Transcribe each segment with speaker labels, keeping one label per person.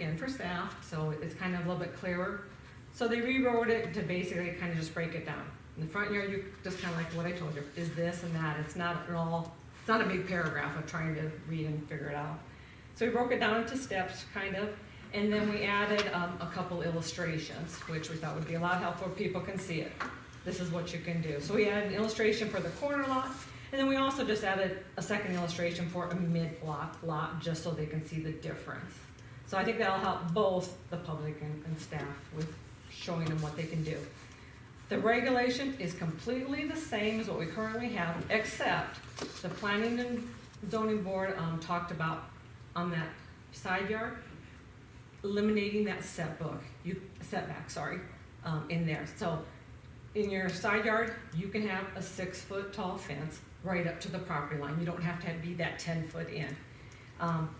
Speaker 1: and for staff, so it's kind of a little bit clearer. So they rewrote it to basically kind of just break it down. In the front yard, you, just kind of like what I told you, is this and that, it's not at all, it's not a big paragraph of trying to read and figure it out. So we broke it down into steps, kind of, and then we added, um, a couple illustrations, which we thought would be a lot helpful, people can see it. This is what you can do. So we added an illustration for the corner lot, and then we also just added a second illustration for a mid-block lot, just so they can see the difference. So I think that'll help both the public and, and staff with showing them what they can do. The regulation is completely the same as what we currently have, except the planning and zoning board, um, talked about on that side yard, eliminating that setback, you, setback, sorry, um, in there. So in your side yard, you can have a six-foot tall fence right up to the property line. You don't have to have- be that ten-foot in. Um,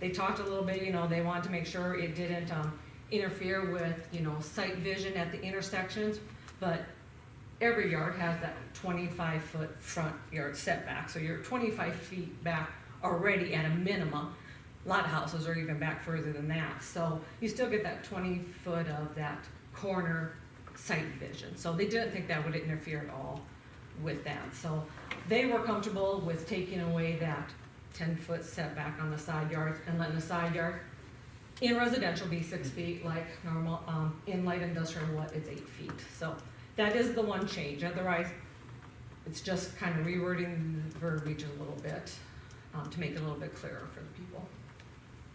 Speaker 1: They talked a little bit, you know, they wanted to make sure it didn't um, interfere with, you know, sight vision at the intersections, but every yard has that twenty-five foot front yard setback, so you're twenty-five feet back already at a minimum. A lot of houses are even back further than that, so you still get that twenty foot of that corner sight vision. So they didn't think that would interfere at all with that. So they were comfortable with taking away that ten-foot setback on the side yards and letting the side yard in residential be six feet like normal, um, in light industrial, what, it's eight feet. So that is the one change, otherwise, it's just kind of rewording the verbiage a little bit, um, to make it a little bit clearer for the people.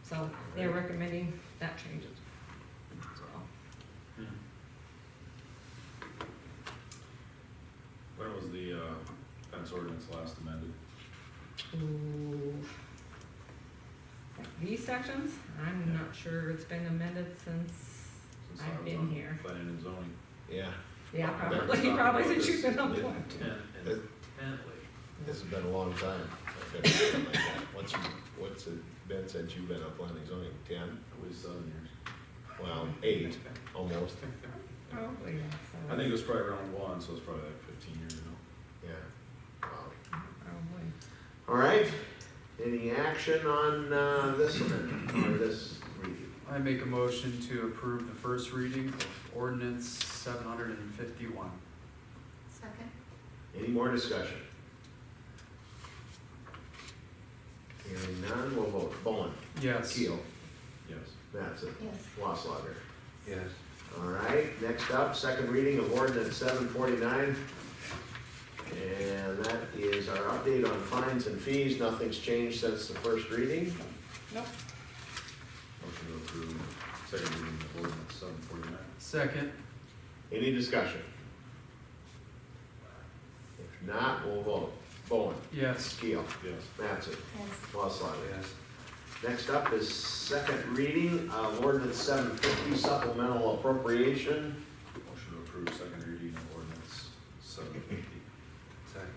Speaker 1: So they're recommending that change as well.
Speaker 2: When was the uh, fence ordinance last amended?
Speaker 1: Ooh. Mm. These sections, I'm not sure, it's been amended since,
Speaker 2: Since I
Speaker 1: I've
Speaker 2: was
Speaker 1: been
Speaker 2: on
Speaker 1: here.
Speaker 2: Planning and zoning.
Speaker 3: Yeah,
Speaker 1: yeah,
Speaker 2: Back
Speaker 1: probably,
Speaker 2: on
Speaker 1: probably
Speaker 2: August
Speaker 1: since you've been on
Speaker 2: fifth.
Speaker 1: board.
Speaker 3: it, this has been a long time. I've been something like that. What's, what's it been since you've been on planning zoning? Ten?
Speaker 2: At least seven years.
Speaker 3: Well, eight, almost,
Speaker 1: Probably,
Speaker 2: I
Speaker 1: so,
Speaker 2: think it was probably around one, so it's probably like fifteen years ago.
Speaker 3: yeah. Wow.
Speaker 1: probably.
Speaker 3: All right, any action on, uh, this one, or this review?
Speaker 4: I make a motion to approve the first reading of ordinance seven hundred and fifty-one.
Speaker 5: Second?
Speaker 3: Any more discussion? Hearing none, we'll vote. Bowen,
Speaker 4: Yes.
Speaker 3: Keel,
Speaker 2: Yes.
Speaker 3: Mattson,
Speaker 5: Yes.
Speaker 3: Waslager.
Speaker 4: Yes.
Speaker 3: All right, next up, second reading of ordinance seven forty-nine. And that is our update on fines and fees. Nothing's changed since the first reading.
Speaker 1: Nope.
Speaker 2: Motion to approve second reading of ordinance seven forty-nine.
Speaker 4: Second,
Speaker 3: Any discussion? If not, we'll vote. Bowen,
Speaker 4: yes.
Speaker 3: Keel,
Speaker 2: Yes.
Speaker 3: Mattson,
Speaker 5: Yes.
Speaker 3: Waslager. Next up is second reading of ordinance seven fifty supplemental appropriation.
Speaker 2: Motion to approve second reading of ordinance seven fifty.
Speaker 4: Second.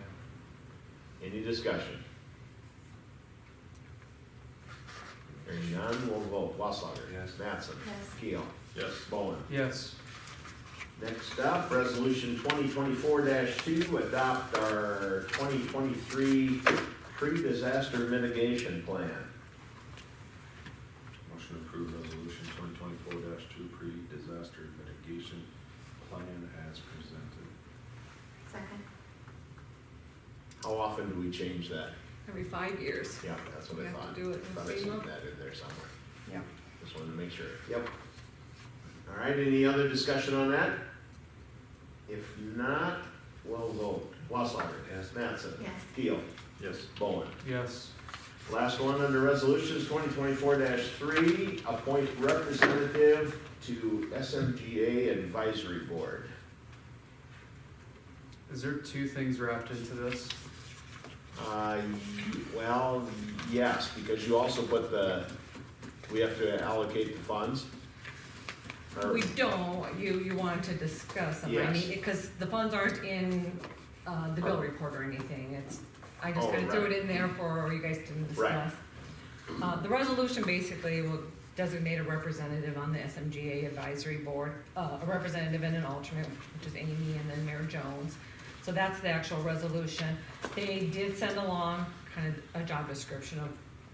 Speaker 3: Any discussion? Hearing none, we'll vote. Waslager.
Speaker 4: Yes.
Speaker 3: Mattson.
Speaker 5: Yes.
Speaker 3: Keel.
Speaker 2: Yes.
Speaker 3: Bowen.
Speaker 4: Yes.
Speaker 3: Next up, resolution twenty twenty-four two, adopt our twenty twenty-three pre-disaster mitigation plan.
Speaker 2: Motion to approve resolution twenty twenty-four two pre-disaster mitigation plan as presented.
Speaker 5: Second?
Speaker 3: How often do we change that?
Speaker 1: Every five years.
Speaker 3: Yeah, that's what
Speaker 1: We
Speaker 3: I
Speaker 1: have to
Speaker 3: thought.
Speaker 1: do it in
Speaker 3: Thought I saw
Speaker 1: FEMA.
Speaker 3: that in there somewhere.
Speaker 1: Yeah.
Speaker 3: Just wanted to make sure. Yep. All right, any other discussion on that? If not, we'll vote. Waslager.
Speaker 2: Yes.
Speaker 3: Mattson.
Speaker 5: Yes.
Speaker 3: Keel.
Speaker 2: Yes.
Speaker 3: Bowen.
Speaker 4: Yes.
Speaker 3: Last one under resolutions, twenty twenty-four three, appoint representative to SMGA Advisory Board.
Speaker 4: Is there two things wrapped into this?
Speaker 3: Uh, well, yes, because you also put the, we have to allocate the funds. Or-
Speaker 1: We don't, you, you wanted to discuss them, I mean,
Speaker 3: Yes.
Speaker 1: because the funds aren't in, uh, the bill report or anything, it's, I just
Speaker 3: Oh,
Speaker 1: kinda threw
Speaker 3: right.
Speaker 1: it in there for, you guys didn't
Speaker 3: Right.
Speaker 1: discuss. Uh, the resolution basically will designate a representative on the SMGA advisory board, uh, a representative and an alternate, which is Amy and then Mayor Jones. So that's the actual resolution. They did send along kind of a job description of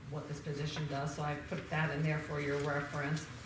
Speaker 1: what this position does, so I put that in there for your reference.